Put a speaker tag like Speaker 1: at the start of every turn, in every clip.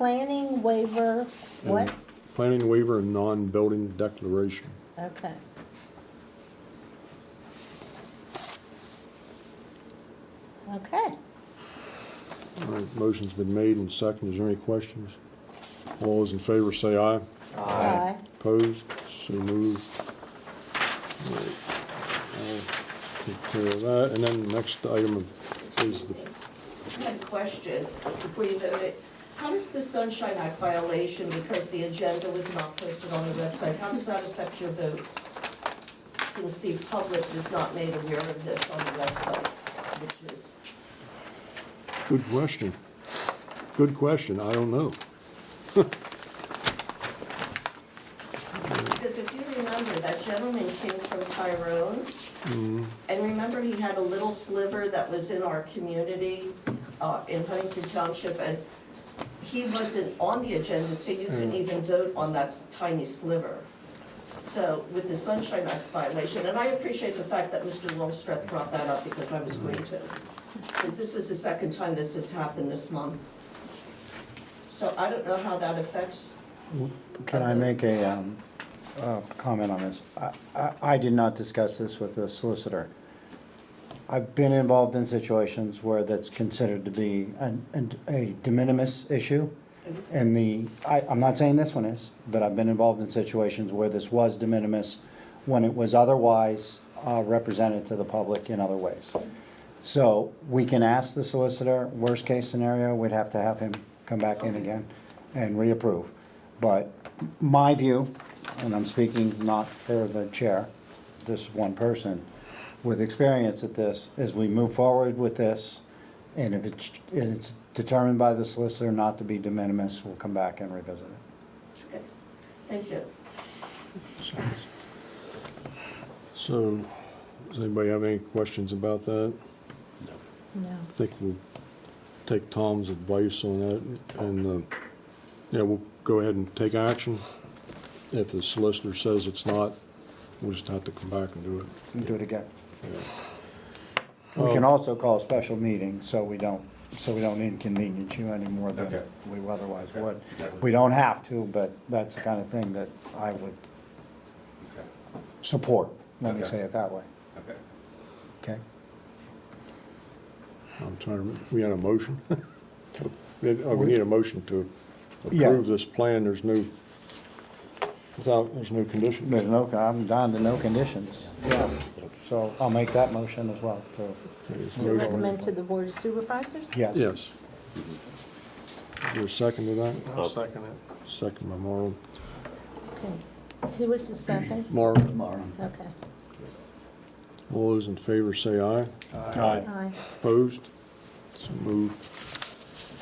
Speaker 1: planning waiver,
Speaker 2: Mm-hmm.
Speaker 1: what?
Speaker 2: Planning waiver and non-building declaration.
Speaker 1: Okay. Okay,
Speaker 2: All right, motion's been made and seconded. Is there any questions? All those in favor say aye.
Speaker 1: aye,
Speaker 2: Opposed? So moved. All right, I'll Take care of that. And then the next item is the,
Speaker 3: I had a question before you vote it. How does the Sunshine Act violation, because the agenda was not posted on the website, how does that affect your vote? Since the public was not made aware of this on the website, which is,
Speaker 2: good question. Good question. I don't know.
Speaker 3: because if you remember, that gentleman came from Tyrone. And remember, he had a little sliver that was in our community, uh, in Huntington Township, and he wasn't on the agenda, so you couldn't even vote on that tiny sliver. So with the Sunshine Act violation, and I appreciate the fact that Mr. Longstreth brought that up because I was going to. Because this is the second time this has happened this month. So I don't know how that affects,
Speaker 4: Can I make a, um, uh, comment on this? I, I, I did not discuss this with the solicitor. I've been involved in situations where that's considered to be an, an, a de minimis issue. And the, I, I'm not saying this one is, but I've been involved in situations where this was de minimis when it was otherwise, uh, represented to the public in other ways. So we can ask the solicitor, worst case scenario, we'd have to have him come back in again and reapprove. But my view, and I'm speaking not for the chair, this one person, with experience at this, as we move forward with this, and if it's, and it's determined by the solicitor not to be de minimis, we'll come back and revisit it.
Speaker 3: okay, thank you.
Speaker 2: So, does anybody have any questions about that?
Speaker 1: no,
Speaker 2: I think we'll take Tom's advice on that, and, uh, yeah, we'll go ahead and take action. If the solicitor says it's not, we'll just have to come back and do it.
Speaker 4: And do it again. We can also call a special meeting, so we don't, so we don't inconvenience you any more than
Speaker 5: Okay.
Speaker 4: we otherwise
Speaker 5: Okay.
Speaker 4: would.
Speaker 5: That would-
Speaker 4: We don't have to, but that's the kind of thing that I would
Speaker 5: Okay.
Speaker 4: support, let me
Speaker 5: Okay.
Speaker 4: say it that way,
Speaker 5: Okay.
Speaker 4: okay?
Speaker 2: I'm trying to, rem- we had a motion? We had- oh, we need a motion to
Speaker 4: Yeah.
Speaker 2: approve this plan, there's no, without, there's no condition.
Speaker 4: There's no, I'm down to no conditions. Yeah. So I'll make that motion as well, so,
Speaker 1: to recommend to the Board of Supervisors?
Speaker 4: yes.
Speaker 2: Yes. Is there a second to that?
Speaker 6: I'll second it.
Speaker 2: Second by Marl.
Speaker 1: Okay. Who was the second?
Speaker 2: Marl?
Speaker 1: Okay,
Speaker 2: All those in favor say aye.
Speaker 1: aye,
Speaker 2: Opposed? So moved.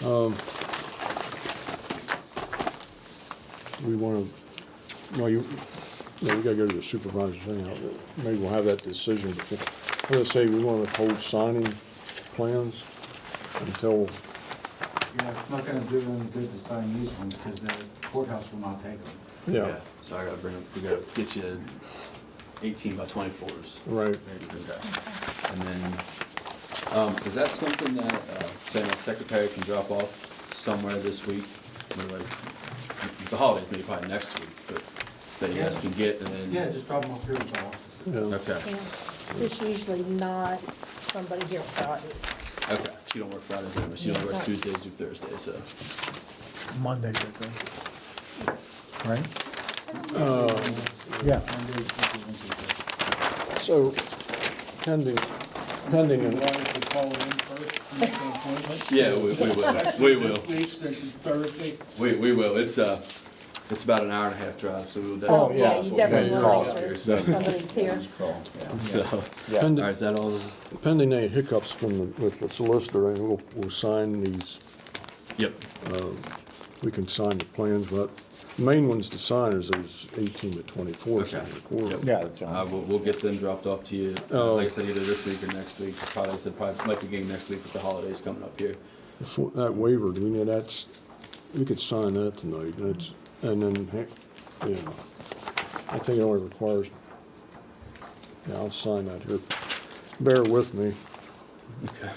Speaker 2: Um, We want to, no, you, no, we gotta go to the supervisors anyhow. Maybe we'll have that decision. before- I'm gonna say we want to hold signing plans until,
Speaker 7: Yeah, it's not gonna do any good to sign these ones, because the courthouse will not take them.
Speaker 2: yeah,
Speaker 6: So I gotta bring, we gotta get you eighteen by twenty-fours.
Speaker 2: right.
Speaker 6: And then, um, is that something that, uh, say my secretary can drop off somewhere this week? Maybe like, The holidays, maybe probably next week, but that you guys can get and then.
Speaker 7: Yeah, just drop them off here at the office.
Speaker 2: yeah.
Speaker 6: Okay,
Speaker 1: yeah. There's usually not somebody here Fridays.
Speaker 6: okay. She don't work Fridays anymore. She only works
Speaker 1: Yeah.
Speaker 6: Tuesdays through Thursdays, so.
Speaker 4: Monday, I think. Right? Yeah,
Speaker 7: Monday, Tuesday, Wednesday.
Speaker 2: So pending, pending,
Speaker 7: You
Speaker 2: an-
Speaker 7: wanted to call it in first, make an appointment?
Speaker 6: Yeah, we, we will, we will.
Speaker 7: Next week, since it's Thursday.
Speaker 6: We, we will. It's, uh, it's about an hour and a half drive, so we will
Speaker 1: Oh,
Speaker 6: definitely.
Speaker 1: yeah, you definitely
Speaker 4: Yeah,
Speaker 1: want
Speaker 4: call
Speaker 1: to make
Speaker 6: us.
Speaker 1: sure somebody's here.
Speaker 6: So, all right,
Speaker 2: pending,
Speaker 6: is that all?
Speaker 2: pending any hiccups from the, with the solicitor, and we'll, we'll sign these
Speaker 6: Yep.
Speaker 2: we can sign the plans, but the main ones to sign is those eighteen to twenty-four.
Speaker 6: Okay.
Speaker 4: yeah, that's right.
Speaker 6: Uh, we'll, we'll get them dropped off to you,
Speaker 2: Oh.
Speaker 6: like I said, either this week or next week. Probably, I said, probably might be getting next week with the holidays coming up here.
Speaker 2: Before, that waiver, do we need, that's, we could sign that tonight, that's, and then, heck, yeah. I think it only requires, yeah, I'll sign that here. Bear with me.
Speaker 6: Okay.